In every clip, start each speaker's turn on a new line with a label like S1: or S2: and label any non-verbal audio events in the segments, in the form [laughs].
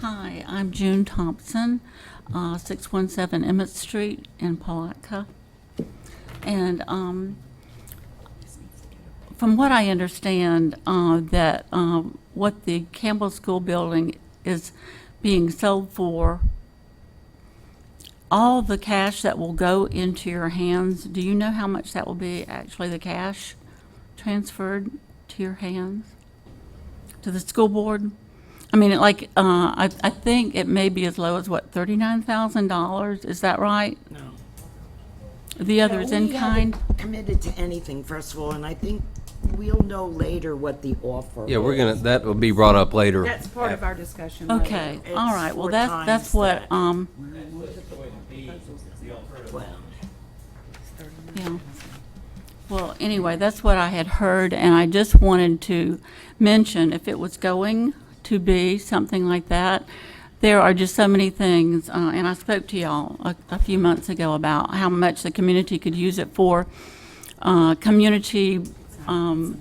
S1: Hi, I'm June Thompson, uh, 617 Emmett Street in Palatka. And um, from what I understand, uh, that um, what the Campbell School Building is being sold for, all the cash that will go into your hands, do you know how much that will be, actually, the cash transferred to your hands? To the school board? I mean, like, uh, I, I think it may be as low as, what, thirty-nine thousand dollars, is that right?
S2: No.
S1: The other is
S3: Yeah,
S1: in
S3: we haven't
S1: kind?
S3: Committed to anything, first of all, and I think we'll know later what the offer.
S4: Yeah, we're
S3: is.
S4: gonna, that will be brought up later.
S5: That's part of our discussion. later.
S1: Okay,
S3: It's
S1: all right, well,
S3: four
S1: that's, that's
S3: times
S1: what,
S3: that.
S1: um,
S3: Well,
S1: yeah. Well, anyway, that's what I had heard, and I just wanted to mention, if it was going to be something like that, there are just so many things, uh, and I spoke to y'all a, a few months ago about how much the community could use it for, uh, community, um,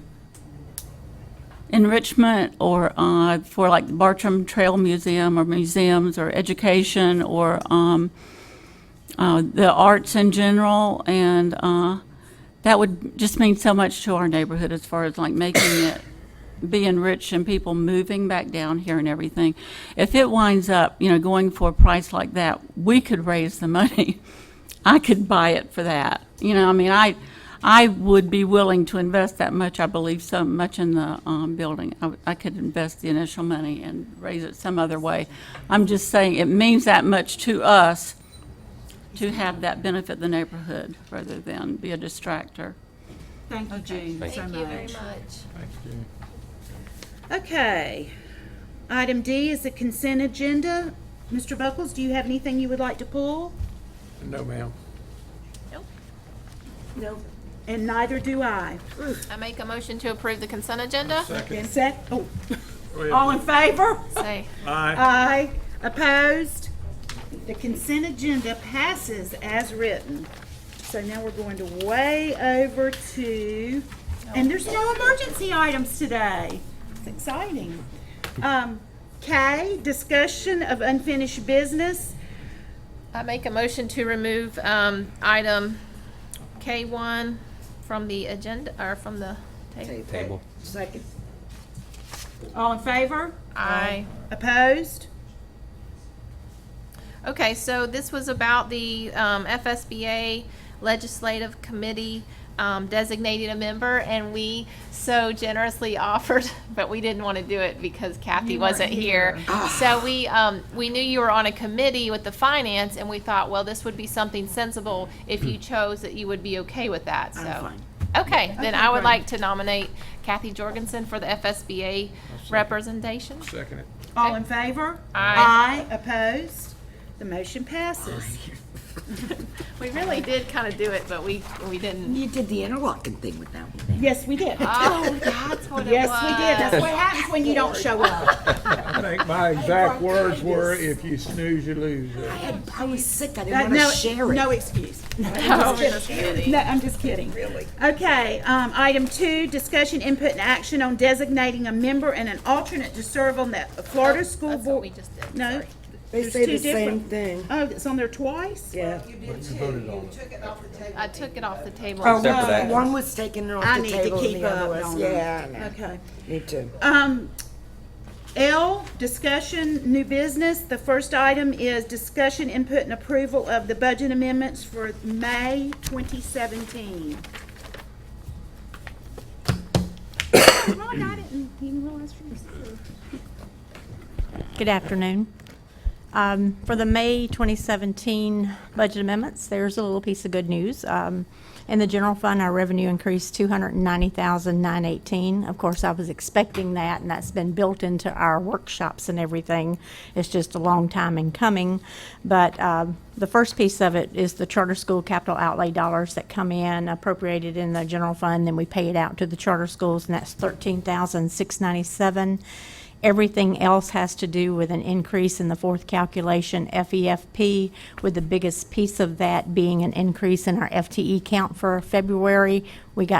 S1: enrichment or uh, for like the Bartram Trail Museum or museums or education or um, uh, the arts in general. And uh, that would just mean so much to our neighborhood as far as like making it being rich and people moving back down here and everything. If it winds up, you know, going for a price like that, we could raise the money. [laughs] I could buy it for that. You know, I mean, I, I would be willing to invest that much. I believe so much in the um, building. I, would- I could invest the initial money and raise it some other way. I'm just saying it means that much to us to have that benefit the neighborhood rather than be a distractor.
S5: Thank you, Jane, so
S6: Thank you very
S5: much.
S6: much.
S5: Okay. Item D is the consent agenda. Mr. Buckles, do you have anything you would like to pull?
S2: No, ma'am.
S5: No. And neither do I.
S6: I make a motion to approve the consent agenda.
S5: Consent, oh, all in favor?
S6: Say,
S2: Aye.
S5: Aye. Opposed? The consent agenda passes as written. So now we're going to way over to, and there's no emergency items today. It's exciting. Um, K, discussion of unfinished business.
S6: I make a motion to remove, um, item K one from the agenda, or from the table.
S4: Table.
S3: Second,
S5: All in favor?
S6: Aye.
S5: Opposed?
S6: Okay, so this was about the um, FSBA Legislative Committee um, designating a member, and we so generously [laughs] offered, but we didn't want to do it because Kathy wasn't here. So we, um, we knew you were on a committee with the finance, and we thought, well, this would be something sensible if you chose that you would be okay with that, so.
S3: fine.
S6: Okay, then I would like to nominate Kathy Jorgensen for the FSBA representation.
S2: Second it.
S5: All in favor?
S6: Aye.
S5: Aye. Opposed? The motion passes.
S6: We really did kind of do it, but we, we didn't.
S3: you did the interlocking thing with that one.
S5: Yes, we did.
S6: Oh, that's what it
S5: Yes,
S6: was.
S5: we did. That's what happens when you don't show up.
S2: I think my exact words were, if you snooze, you lose.
S3: I had- I was sick, I
S5: Uh,
S3: didn't want
S5: No,
S3: to share
S5: No
S3: it.
S5: excuse. No, I'm just kidding. No, I'm just kidding. Really? Okay, um, item two, discussion, input, and action on designating a member and an alternate to serve on the Florida School
S6: That's what
S5: Board.
S6: we just did.
S5: No,
S7: They
S5: There's
S7: say
S5: two
S7: the same
S5: different-
S7: thing.
S5: oh, it's on there twice?
S7: Yeah.
S6: I took it off the table.
S5: Oh,
S4: Except for that.
S3: One was taken off
S5: I
S3: the
S5: need to
S3: table and
S5: keep
S3: the other
S5: up
S3: was,
S5: on that.
S3: yeah, I know.
S5: Okay.
S3: me too.
S5: Um, L, discussion, new business. The first item is discussion, input, and approval of the budget amendments for May 2017. Ron, I didn't even realize you were here.
S8: Good afternoon. Um, For the May 2017 budget amendments, there's a little piece of good news. Um, In the general fund, our revenue increased 290,918. Of course, I was expecting that, and that's been built into our workshops and everything. It's just a long time in coming. But um, the first piece of it is the charter school capital outlay dollars that come in appropriated in the general fund, then we pay it out to the charter schools, and that's 13,697. Everything else has to do with an increase in the fourth calculation, FEFP, with the biggest piece of that being an increase in our FTE count for E February. We got